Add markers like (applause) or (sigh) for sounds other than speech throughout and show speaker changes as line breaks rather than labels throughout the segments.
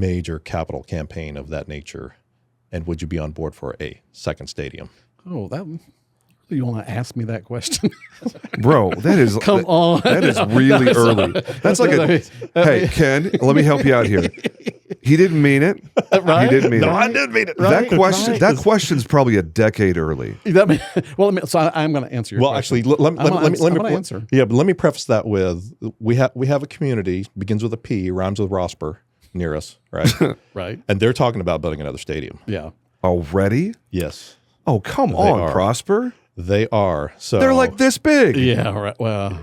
major capital campaign of that nature? And would you be on board for a second stadium?
Oh, that you want to ask me that question?
Bro, that is
(laughs) Come
that-
on.
That
(laughs)
is really early. That's like a hey, Ken. Let me help
(laughs)
you out here. He didn't mean it.
right?
He didn't mean it.
didn't mean it.
that question.
right.
That question's probably a decade early.
(laughs) That may- well, I mean, so I, am going to answer your
Well,
question.
actually, let, let, me-
I'm
let, me- let me let me
gonna ans- I'm gonna
pre-
answer.
Yeah, but let me preface that with we have we have a community begins with a P, rhymes with Rosper near us,
(laughs)
right?
right?
and they're talking about building another stadium.
Yeah.
Already?
Yes,
Oh, come on,
are.
Prosper.
they are. So
They're like this big.
Yeah. all Right. Well,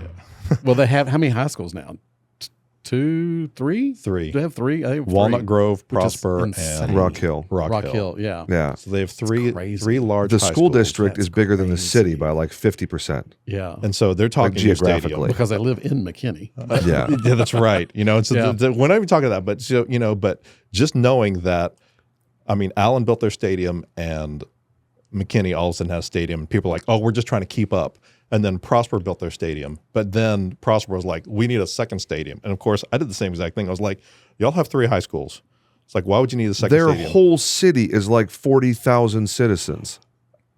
well, they have how many high schools now? T- two, three,
Three.
Do they have three? I think
Walnut
three.
Grove,
which is
Prosper,
insane.
and
Rock Hill.
Rock,
Rock
Hill.
Hill. Yeah.
Yeah.
So they have three
crazy.
three large.
The
high
school
schools.
district is bigger than the city by like
(laughs)
fifty percent.
Yeah.
and so they're talking new stadium.
geographically.
Because I live in McKinney.
Yeah.
yeah, that's right. You know, and so
Yeah.
the, the, we're not even talking about that, but so you know, but just knowing that, I mean, Allen built their stadium and McKinney all of a sudden had a stadium. And people are like, oh, we're just trying to keep up. And then Prosper built their stadium, but then Prosper was like, we need a second stadium. And of course, I did the same exact thing. I was like, y'all have three high schools. It's like, why would you need a second
Their
stadium?
whole city is like forty thousand
(laughs)
citizens.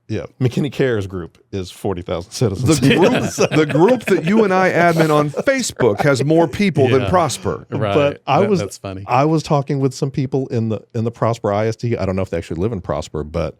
yeah, McKinney Cares Group is forty thousand
The
citizens. (laughs)
group, the group that you and I admin on Facebook has more people than
Yeah.
Prosper.
right.
But I
That-
was-
That's funny.
I was talking with some people in the in the Prosper ISD. I don't know if they actually live in Prosper, but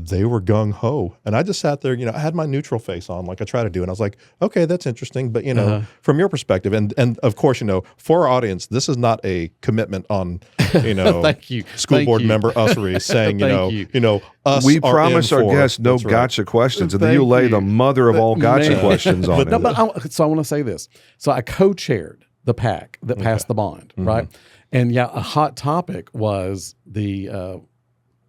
they were gung ho, and I just sat there. You know, I had my neutral face on, like I try to do, and I was like, "Okay, that's interesting," but you know,
Uh-huh.
from your perspective, and and of course, you know, for our audience, this is not a commitment on, you know,
(laughs) Thank you.
school
Thank
board
you.
member
(laughs)
usery saying, you
Thank
know,
you.
you. know, us.
we
are
promise
in
our
for-
guests no
That's right.
gotcha questions, and then you
Thank
lay
you.
the mother of all gotcha
Man.
questions on
but, (laughs) no,
it.
but I, so I want to say this. So I co-chaired the pack that passed the bond,
Mm-hmm.
right? And yeah, a hot topic was the uh,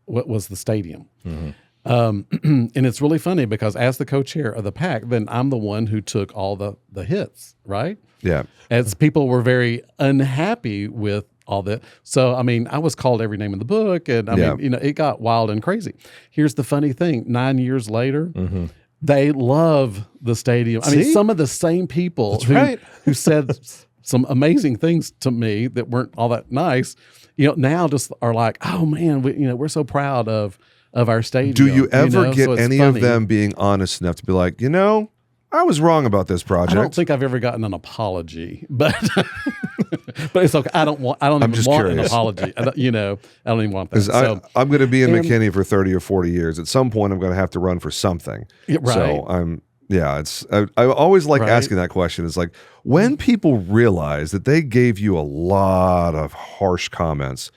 what was the stadium.
Mm-hmm.
Um, (clears throat) and it's really funny because as the co-chair of the pack, then I'm the one who took all the the hits, right?
yeah.
As people were very unhappy with all that. So I mean, I was called every name in the book, and I
Yeah.
mean, you know, it got wild and crazy. Here's the funny thing: nine years later,
Mm-hmm.
they love the stadium. I mean,
See?
some of the same people who,
right.
(laughs) who said s- some amazing things to me that weren't all that nice, you know, now just are like, oh man, we, you know, we're so proud of of our stadium.
Do you ever
know?
get
So it's
any
funny.
of them being honest enough to be like, you know, I was wrong about this
I don't
project?
think I've ever gotten an apology, but (laughs) but it's okay. I don't want. I don't
I'm
even
just
want an
curious.
apology. I don't, you know, I don't even want that.
'Cause I,
So,
I'm going to be in
and-
McKinney for 30 or 40 years. At some point, I'm going to have to run for something.
yeah, right.
So I'm, yeah, it's, I, I always like
Right.
asking that question. It's like when people realize that they gave you a lot of harsh
(laughs)
comments,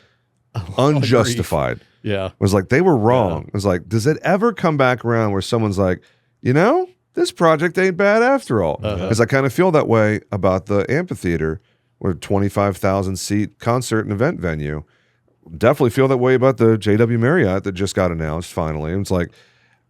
Oh,
unjustified,
yeah.
was like they were wrong. It was like, does it ever come back around where someone's like, you know, this project ain't bad after all?
Uh-huh.
Because I kind of feel that way about the amphitheater, or twenty five thousand seat concert and event venue. Definitely feel that way about the JW Marriott that just got announced finally. And it's like,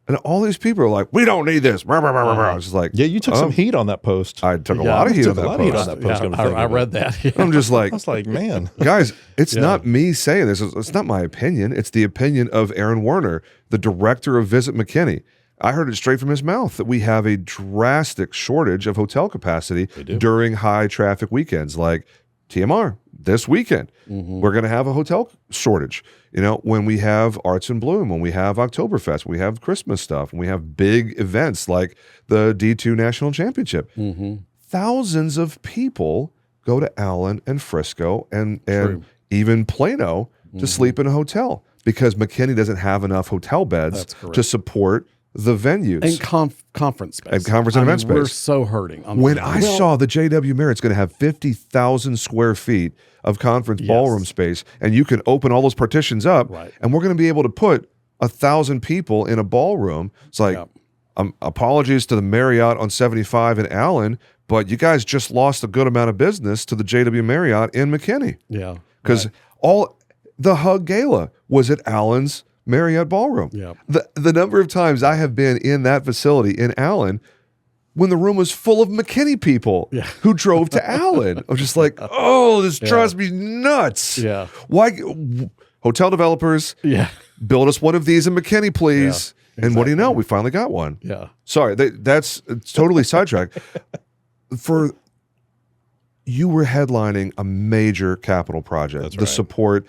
and all these people are like, we don't need this. Rah, rah, rah, rah, rah. It's just like,
Uh-huh. Yeah, you took
oh,
some heat on that post. I,
I took a
Yeah,
lot of
I
heat on
took a
that
lot of heat on
post.
that post,
Yeah,
I'm
I,
thinking
I
about
read that. (laughs) Yeah.
(laughs) I'm
(laughs)
just like,
was like, man,
guys, it's not me saying this. It's, it's not my opinion. It's the opinion of Aaron Werner, the director of Visit McKinney. I heard it straight from his mouth that we have a drastic shortage of hotel capacity
do.
during high traffic weekends like TMR this weekend.
Mm-hmm,
We're going to have a hotel shortage. You know, when we have Arts and Bloom, when we have Oktoberfest, we have Christmas stuff, and we have big events like the D2 National Championship
Mm-hmm.
thousands of people go to Allen and Frisco and and
True. Mm-hmm.
even Plano to sleep in a hotel because McKinney doesn't have enough hotel beds
That's correct.
to support the venues.
and conf- conference space.
And conference and
I mean,
event space.
We're so hurting. on
when
that.
I saw the JW Marriott's going to have 50,000 square feet of conference ballroom space, and you can open all those partitions up,
Right.
and we're going to be able to put a thousand people in a ballroom. It's like,
Yep.
um, apologies to the Marriott on 75 in Allen, but you guys just lost a good amount of business to the JW Marriott in McKinney
yeah,
because all the Hug Gala was at Allen's Marriott Ballroom.
yeah,
The, the number of times I have been in that facility in Allen when the room was full of McKinney people
Yeah.
who drove to Allen. I'm
(laughs)
just like, oh, this drives me (laughs) nuts.
Yeah.
Why? w- Hotel developers,
yeah,
build us one of these in McKinney, please. And what do you know? We finally got one.
yeah.
Sorry, that, that's it's totally sidetracked. For you were headlining a major capital project.
That's
the
right.
support